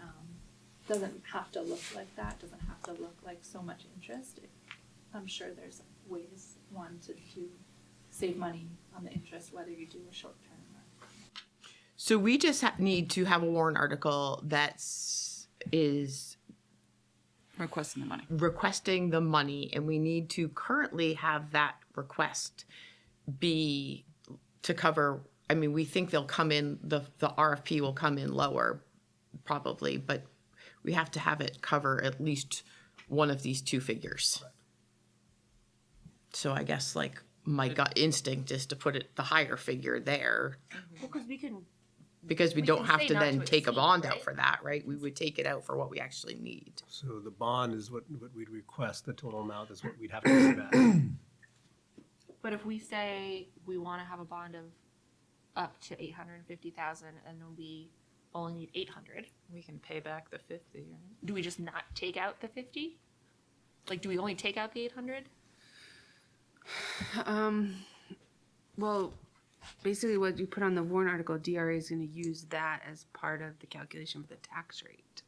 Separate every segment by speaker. Speaker 1: um, doesn't have to look like that, doesn't have to look like so much interest. I'm sure there's ways, one, to do, save money on the interest, whether you do a short term or.
Speaker 2: So we just ha- need to have a warrant article that's is
Speaker 3: requesting the money.
Speaker 2: requesting the money, and we need to currently have that request be to cover. I mean, we think they'll come in. the The RFP will come in lower, probably, but we have to have it cover at least one of these two figures. So I guess like my gut instinct is to put it the higher figure there
Speaker 4: Well, because we can,
Speaker 2: because we don't
Speaker 4: can
Speaker 2: have
Speaker 4: say
Speaker 2: to
Speaker 4: not
Speaker 2: then
Speaker 4: to
Speaker 2: take a
Speaker 4: exceed,
Speaker 2: bond out
Speaker 4: right?
Speaker 2: for that, right? We would take it out for what we actually need.
Speaker 5: So the bond is what, what we'd request, the total amount is what we'd have to pay back.
Speaker 4: but if we say we want to have a bond of up to eight hundred and fifty thousand, and then we only need eight hundred,
Speaker 3: We can pay back the fifty, right?
Speaker 4: do we just not take out the fifty? Like, do we only take out the eight hundred?
Speaker 6: Um, Well, basically what you put on the warrant article, DRA is gonna use that as part of the calculation for the tax rate.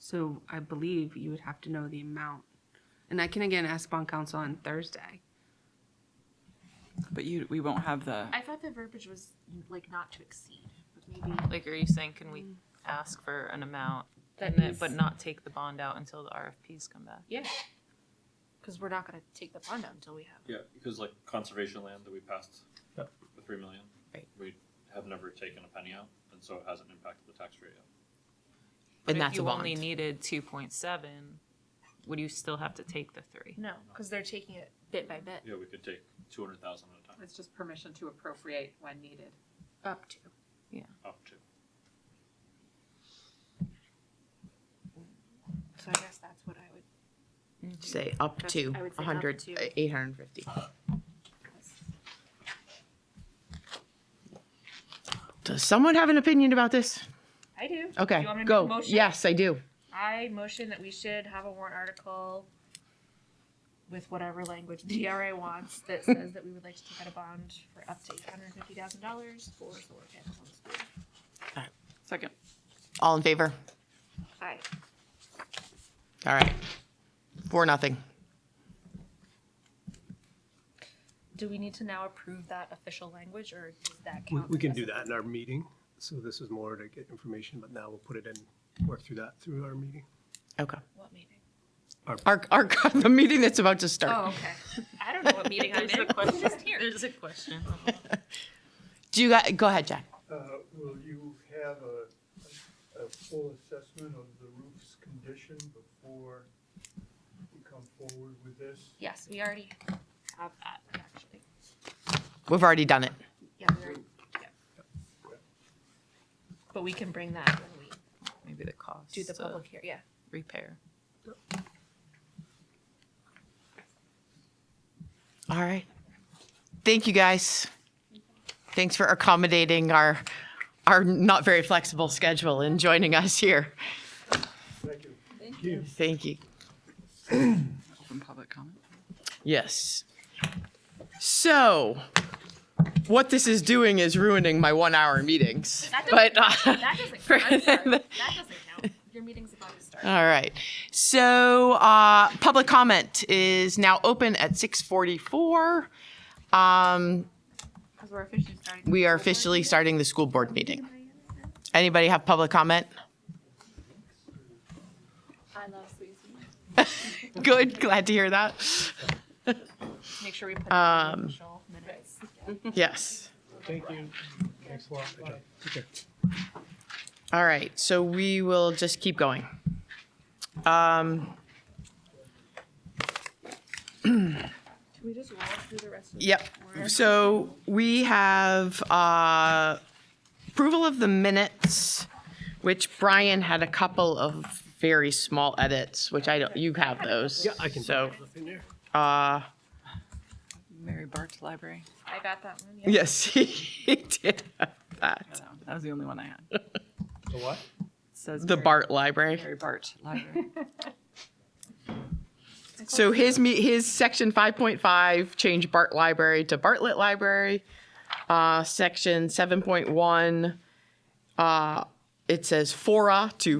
Speaker 6: So I believe you would have to know the amount. And I can again ask bond counsel on Thursday.
Speaker 3: But you, we won't have the.
Speaker 4: I thought the verbiage was like not to exceed, but maybe
Speaker 7: Like, are you saying, can we ask for an amount,
Speaker 4: that
Speaker 7: and then,
Speaker 4: is,
Speaker 7: but not take the bond out until the RFPs come back?
Speaker 4: yeah, because we're not going to take the bond out until we have.
Speaker 8: Yeah, because like conservation land that we passed
Speaker 5: Yep.
Speaker 8: the three million.
Speaker 2: Right.
Speaker 8: We have never taken a penny out, and so it hasn't impacted the tax rate yet.
Speaker 7: But
Speaker 2: And
Speaker 7: if
Speaker 2: that's a
Speaker 7: you only
Speaker 2: bond.
Speaker 7: needed two point seven, would you still have to take the three?
Speaker 4: No, because they're taking it bit by bit
Speaker 8: Yeah, we could take two hundred thousand at a time,
Speaker 9: It's just permission to appropriate when needed.
Speaker 4: up to.
Speaker 8: up to.
Speaker 4: So I guess that's what I would.
Speaker 2: Say up
Speaker 4: That's-
Speaker 2: to uh,
Speaker 4: I would say up
Speaker 2: 100,
Speaker 4: to.
Speaker 2: 850. Does someone have an opinion about this?
Speaker 4: I do.
Speaker 2: Okay,
Speaker 4: you want me to
Speaker 2: go.
Speaker 4: Make a motion?
Speaker 2: Yes, I do.
Speaker 4: I motion that we should have a warrant article with whatever language the DRA wants that says that we would like to take out a bond for up to eight hundred and fifty thousand dollars for solar panels on the school.
Speaker 3: Second.
Speaker 2: All in favor?
Speaker 4: Aye.
Speaker 2: All right. For nothing.
Speaker 4: Do we need to now approve that official language or does that
Speaker 5: We,
Speaker 4: count?
Speaker 5: we can do
Speaker 4: as a-
Speaker 5: that in our meeting, so this is more to get information, but now we'll put it in, work through that through our meeting.
Speaker 2: Okay.
Speaker 4: What meeting?
Speaker 2: Our, our, the meeting that's about to
Speaker 4: Oh,
Speaker 2: start.
Speaker 4: okay. I don't know what meeting I'm
Speaker 7: There's a
Speaker 4: in. I'm
Speaker 7: question,
Speaker 4: just here.
Speaker 7: there's a question.
Speaker 2: Do you, got- go ahead, Jack.
Speaker 10: Uh, Will you have a, a full assessment of the roof's condition before you come forward with this?
Speaker 4: Yes, we already have that actually.
Speaker 2: We've already done it.
Speaker 4: Yeah, we already, yeah. But we can bring that when we
Speaker 7: Maybe the cost
Speaker 4: do the
Speaker 7: of
Speaker 4: public here, yeah.
Speaker 7: repair.
Speaker 2: All right. Thank you, guys. Thanks for accommodating our, our not very flexible schedule and joining us here.
Speaker 10: Thank you.
Speaker 2: Thank you.
Speaker 3: Open public comment.
Speaker 2: Yes. So, what this is doing is ruining my one-hour meetings, but. uh,
Speaker 4: That doesn't count. I'm sorry. That doesn't count. Your meeting's about to start.
Speaker 2: All right. So uh, public comment is now open at 6:44. Um,
Speaker 4: Because we're officially starting.
Speaker 2: we are officially starting the school board meeting. Anybody have public comment?
Speaker 1: I love Swayze.
Speaker 2: Good. Glad to hear that.
Speaker 4: Make sure we put it in
Speaker 2: um,
Speaker 4: the official minutes.
Speaker 2: Yes.
Speaker 5: Thank you. Thanks a lot. Take care.
Speaker 2: All right. So we will just keep going.
Speaker 4: Can we just roll through the rest of
Speaker 2: Yep. So we have uh, approval of the minutes, which Brian had a couple of very small edits, which I don't, you have those.
Speaker 5: Yeah, I can.
Speaker 2: So,
Speaker 5: put it in there.
Speaker 2: uh,
Speaker 3: Mary Bart's library.
Speaker 4: I got that one. yeah.
Speaker 2: yes, he did have
Speaker 3: Yeah,
Speaker 2: that.
Speaker 3: That one. That was the only one I had. It
Speaker 5: The what?
Speaker 3: Says
Speaker 2: The
Speaker 3: Mary-
Speaker 2: Bart Library.
Speaker 3: Mary Bart Library.
Speaker 2: So his, me- his section 5.5 changed Bart Library to Bartlett Library. Uh, Section 7.1, uh, it says fora to